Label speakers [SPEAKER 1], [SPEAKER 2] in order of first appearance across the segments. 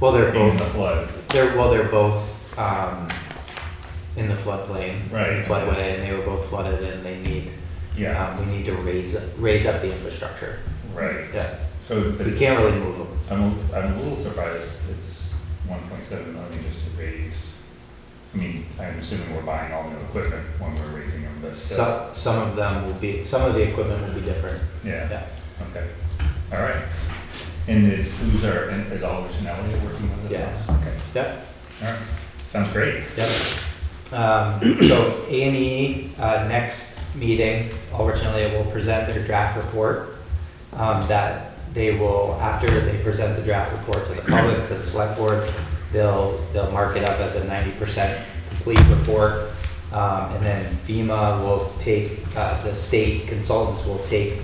[SPEAKER 1] Well, they're
[SPEAKER 2] in
[SPEAKER 1] both,
[SPEAKER 2] the flood.
[SPEAKER 1] they're, well, they're both, um, in the floodplain.
[SPEAKER 2] Right.
[SPEAKER 1] Floodway, and they were both flooded and they need,
[SPEAKER 2] Yeah,
[SPEAKER 1] um, we need to raise, raise up the infrastructure.
[SPEAKER 2] right.
[SPEAKER 1] Yeah,
[SPEAKER 2] So, but
[SPEAKER 1] we can't really move them.
[SPEAKER 2] I'm, a- I'm a little surprised it's one point seven million just to raise. I mean, I'm assuming we're buying all new equipment when we're raising them, but still,
[SPEAKER 1] Some, some of them will be, some of the equipment will be different.
[SPEAKER 2] yeah,
[SPEAKER 1] Yeah,
[SPEAKER 2] okay, all right. And is, who's our, and is Oliver Chanelli working with us?
[SPEAKER 1] Yes.
[SPEAKER 2] Okay,
[SPEAKER 1] yep.
[SPEAKER 2] all right, sounds great.
[SPEAKER 1] Yep. Um, so A and E, uh, next meeting, originally will present their draft report. Um, that they will, after they present the draft report to the public, to the select board, they'll, they'll mark it up as a ninety percent complete report. Um, and then FEMA will take, uh, the state consultants will take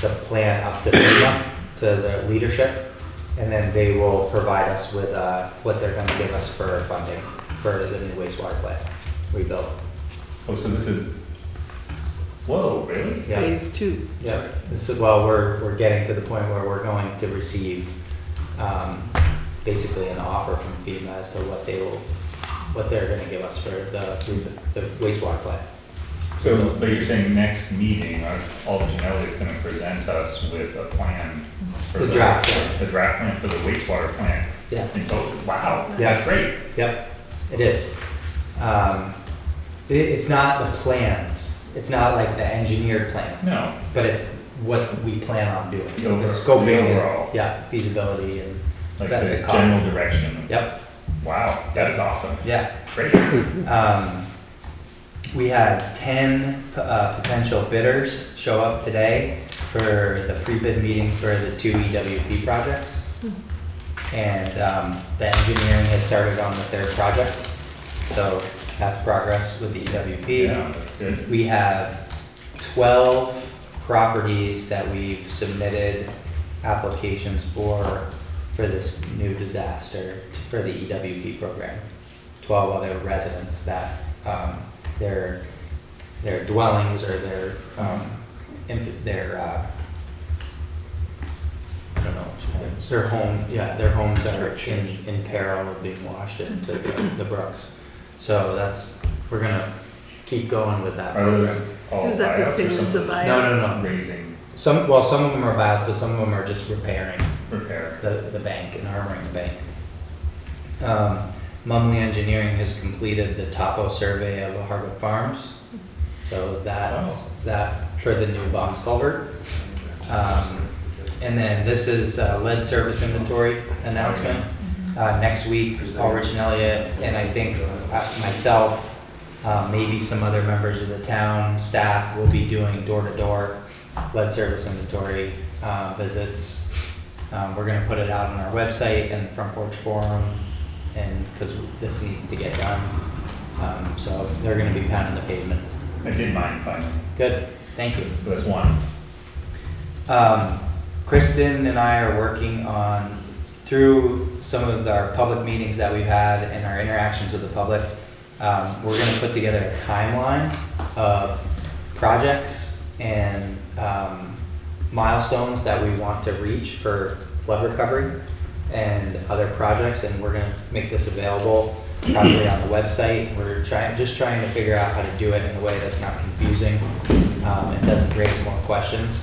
[SPEAKER 1] the plan up to FEMA, to the leadership. And then they will provide us with, uh, what they're gonna give us for funding for the new wastewater plant rebuild.
[SPEAKER 2] Oh, so this is, whoa, really?
[SPEAKER 1] Yeah,
[SPEAKER 3] Phase two.
[SPEAKER 1] yeah. This is, well, we're, we're getting to the point where we're going to receive, um, basically an offer from FEMA as to what they will, what they're gonna give us for the, the wastewater plant.
[SPEAKER 2] So, but you're saying next meeting, uh, Oliver Janelli is gonna present us with a plan for
[SPEAKER 1] The
[SPEAKER 2] the.
[SPEAKER 1] draft plan.
[SPEAKER 2] The draft plan for the wastewater plant.
[SPEAKER 1] Yes.
[SPEAKER 2] And go, wow,
[SPEAKER 1] Yeah.
[SPEAKER 2] that's great.
[SPEAKER 1] Yep, it is. Um, it, it's not the plans. It's not like the engineered plans.
[SPEAKER 2] No.
[SPEAKER 1] But it's what we plan on doing.
[SPEAKER 2] The over-
[SPEAKER 1] scoping
[SPEAKER 2] the
[SPEAKER 1] and-
[SPEAKER 2] overall.
[SPEAKER 1] Yeah, feasibility and.
[SPEAKER 2] Like
[SPEAKER 1] benefit
[SPEAKER 2] the
[SPEAKER 1] cost.
[SPEAKER 2] general direction.
[SPEAKER 1] Yep,
[SPEAKER 2] Wow, that is awesome.
[SPEAKER 1] yeah.
[SPEAKER 2] Great.
[SPEAKER 1] Um, we had ten, p- uh, potential bidders show up today for the pre-bid meeting for the two EWP projects. And, um, the engineering has started on the third project, so that's progress with the E EWP.
[SPEAKER 2] Yeah, that's good.
[SPEAKER 1] We have twelve properties that we've submitted applications for, for this new disaster, for the EWP program. Twelve other residents that, um, their, their dwellings or their, um, inf- their, uh, I don't know, what you call it. their home, yeah, their homes are in, in peril of being washed into the the brooks. So that's, we're gonna keep going with that.
[SPEAKER 2] Are those all
[SPEAKER 3] Is that the
[SPEAKER 2] buyouts or
[SPEAKER 3] same
[SPEAKER 2] some
[SPEAKER 3] as the
[SPEAKER 2] of
[SPEAKER 3] buyout?
[SPEAKER 1] No, no,
[SPEAKER 2] those
[SPEAKER 1] no.
[SPEAKER 2] Raising
[SPEAKER 1] Some, well, some of them are buyouts, but some of them are just repairing
[SPEAKER 2] repair.
[SPEAKER 1] the, the bank and armoring the bank. Um, Mumley Engineering has completed the topo survey of Harvard Farms. So that,
[SPEAKER 2] Wow.
[SPEAKER 1] that for the new box culvert. Um, and then this is uh, lead service inventory announcement. Uh, next week, Paul Riccinelli and I think uh, myself, uh, maybe some other members of the town staff will be doing door-to-door lead service inventory, uh, visits. Um, we're gonna put it out on our website and Front Porch Forum and, cause this needs to get done. Um, so they're gonna be pounding the pavement.
[SPEAKER 2] I did mine finally.
[SPEAKER 1] Good, thank you.
[SPEAKER 2] So that's one.
[SPEAKER 1] Um, Kristen and I are working on, through some of our public meetings that we've had and our interactions with the public, um, we're gonna put together a timeline of projects and, um, milestones that we want to reach for flood recovery and other projects, and we're gonna make this available probably on the website. We're trying, just trying to figure out how to do it in a way that's not confusing, um, and doesn't raise more questions.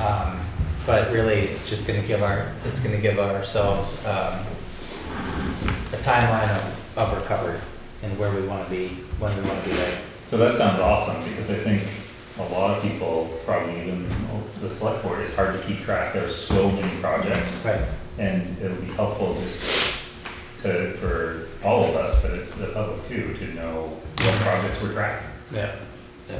[SPEAKER 1] Um, but really, it's just gonna give our, it's gonna give ourselves, um, a timeline of, of recovery and where we wanna be, when we wanna be there.
[SPEAKER 2] So that sounds awesome, because I think a lot of people, probably even the select board, it's hard to keep track, there's so many projects.
[SPEAKER 1] Right.
[SPEAKER 2] And it'll be helpful just to, for all of us, but the public too, to know what projects we're tracking.
[SPEAKER 1] Yeah, yeah.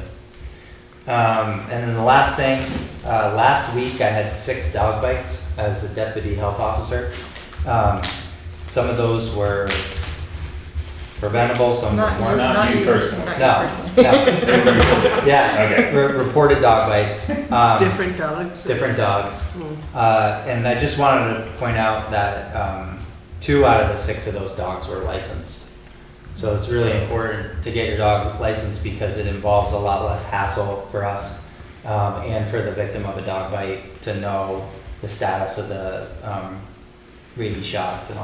[SPEAKER 1] Um, and then the last thing, uh, last week I had six dog bites as the deputy health officer. Um, some of those were preventable, some of
[SPEAKER 4] Not
[SPEAKER 1] them
[SPEAKER 4] you,
[SPEAKER 1] weren't.
[SPEAKER 2] not
[SPEAKER 4] not
[SPEAKER 2] you
[SPEAKER 4] you
[SPEAKER 2] personally.
[SPEAKER 4] personally. Not you
[SPEAKER 1] No,
[SPEAKER 4] personally.
[SPEAKER 1] no, yeah,
[SPEAKER 2] Okay.
[SPEAKER 1] re- reported dog bites. Um,
[SPEAKER 3] Different dogs.
[SPEAKER 1] Different dogs.
[SPEAKER 3] Mm.
[SPEAKER 1] Uh, and I just wanted to point out that um, two out of the six of those dogs were licensed. So it's really important to get your dog licensed because it involves a lot less hassle for us um, and for the victim of a dog bite to know the status of the um, rabies shots and all.